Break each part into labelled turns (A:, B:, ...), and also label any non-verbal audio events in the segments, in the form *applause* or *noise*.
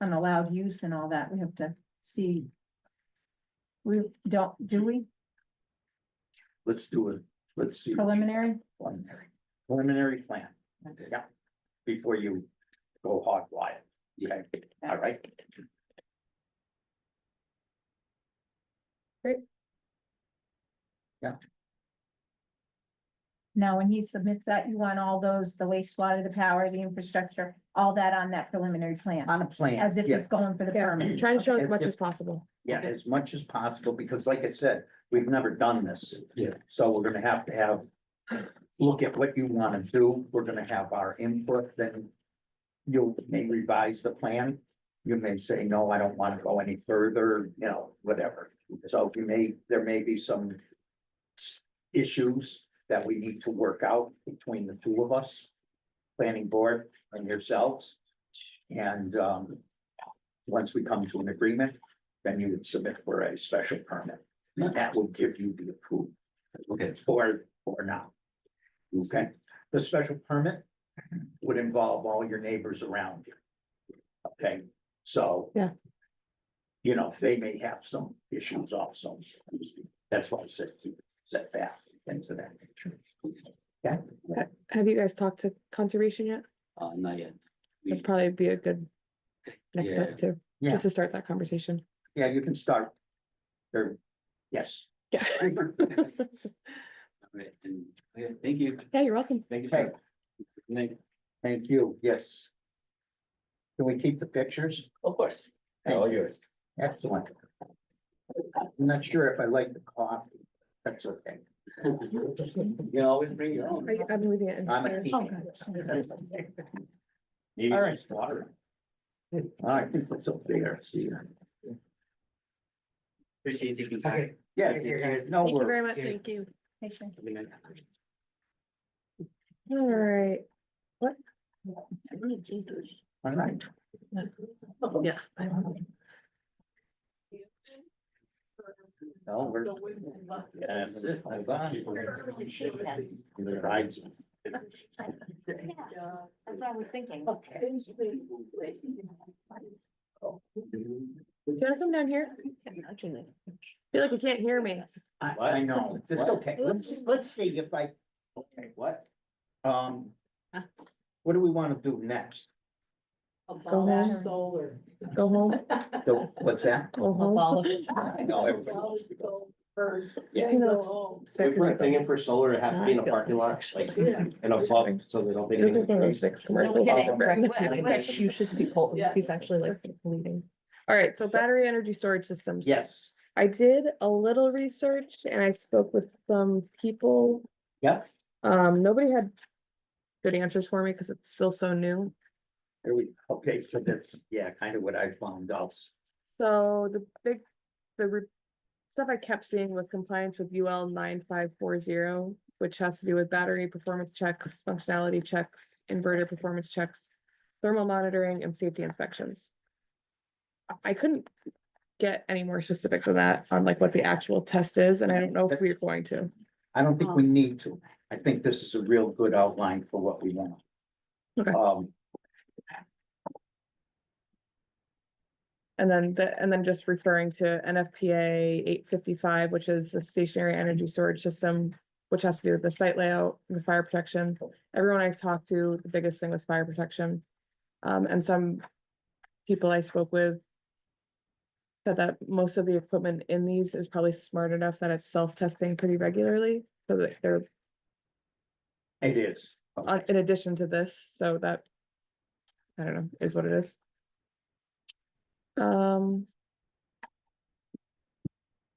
A: on allowed use and all that, we have to see. We don't, do we
B: Let's do it. Let's see.
A: preliminary?
B: Preliminary plan. Yeah. Before you go hog wild. Yeah, all right.
A: Now, when he submits that, you want all those, the wastewater, the power, the infrastructure, all that on that preliminary plan,
B: On a plan.
A: as if
B: yes.
A: it's going for the
C: Yeah,
A: permit.
C: trying to show
B: If-
C: as much
B: if-
C: as possible.
B: Yeah, as much as possible, because like I said, we've never done this.
D: Yeah.
B: So we're gonna have to have, look at what you wanna do, we're gonna have our input, then you may revise the plan. You may say, no, I don't wanna go any further, you know, whatever. So you may, there may be some s- issues that we need to work out between the two of us, planning board and yourselves. And, um, once we come to an agreement, then you would submit for a special permit. And that will give you the approval
D: Okay,
B: or, or not. Okay, the special permit would involve all your neighbors around you. Okay, so.
C: Yeah.
B: You know, they may have some issues also. That's why I said keep it set back, things of that nature.
C: Have you guys talked to conservation yet?
D: uh, not yet.
C: That'd probably be a good next
D: Yeah.
C: step too,
B: Yeah.
C: just to start that conversation.
B: Yeah, you can start. There, yes.
C: Yeah,
D: Right, and, oh, yeah, thank you,
C: *laughs* yeah, you're welcome.
D: thank you.
B: Okay.
D: sir. Good night.
B: Thank you, yes. Can we keep the pictures?
D: Of course. All yours.
B: Oh, Excellent. I'm not sure if I like the coffee. That's okay.
C: *laughs*
D: You can always bring your own.
C: I- I'm leaving it. in
B: I'm a
C: there.
B: tea.
A: Oh,
B: All
D: Maybe
B: right.
D: just water.
B: I think that's up there, see.
D: Appreciate you taking time.
B: Yes, no
C: Thank you
B: worries.
C: very much,
D: Yeah.
C: thank you.
D: Have a good night.
C: All right,
B: All right.
C: yeah.
B: No, we're. Yeah, that's it. Hold on. Either rides.
C: *laughs*
A: That's what I was thinking.
C: Do you wanna come down here? Feel like you can't hear me.
B: I, I know, it's okay, let's, let's see if I, okay, what? Um, what do we wanna do next?
C: Abolish
E: solar.
C: Go home,
B: The- What's
C: *laughs*
B: that?
C: go home.
B: I know, everybody.
C: Yeah.
F: If we're thinking for solar, it has to be in a
C: Not
F: parking lot, like,
E: Yeah.
F: and above, so they don't think.
C: You're thinking
F: anything's
C: it's
F: crazy.
C: fixed commercial. You should see Colton,
E: Yeah.
C: he's actually like leading. All right, so battery energy storage systems.
B: Yes,
C: I did a little research and I spoke with some people.
B: Yep.
C: Um, nobody had good answers for me because it's still so new.
B: there we, okay, so that's, yeah, kind of what I found out.
C: So the big, the re- stuff I kept seeing was compliance with UL nine five four zero, which has to do with battery performance checks, functionality checks, inverter performance checks, thermal monitoring and safety inspections. I- I couldn't get any more specific than that on like what the actual test is, and I don't know if we're going to.
B: I don't
C: Oh.
B: think we need to. I think this is a real good outline for what we want.
C: Okay.
B: Um,
C: And then the, and then just referring to NFPA eight fifty-five, which is the stationary energy storage system, which has to do with the site layout, and the fire protection. Everyone I've talked to, the biggest thing was fire protection. Um, and some people I spoke with said that most of the equipment in these is probably smart enough that it's self-testing pretty regularly, so that they're
B: it is.
C: uh, in addition to this, so that. I don't know, is what it is. Um.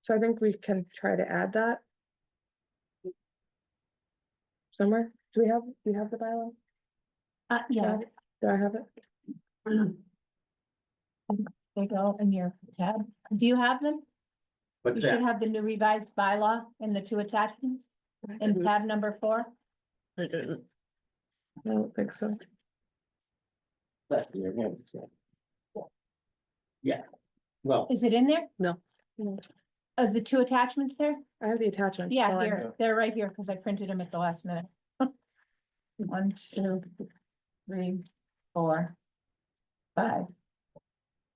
C: So I think we can try to add that. Somewhere, do we have, do you have the bylaw?
A: Uh, yeah,
C: Do I have it?
A: they go in your tab. Do you have them? You
B: But
A: should
B: that,
A: have the new revised bylaw and the two attachments in
C: Mm-hmm.
A: tab number four.
C: I didn't. I don't think so.
B: well,
A: Is it in there?
C: No. No.
A: Is the two attachments there?
C: I have the attachment.
A: Yeah,
C: so I-
A: here, they're right here, because I printed them at the last minute. *laughs* One, two, three, four, five,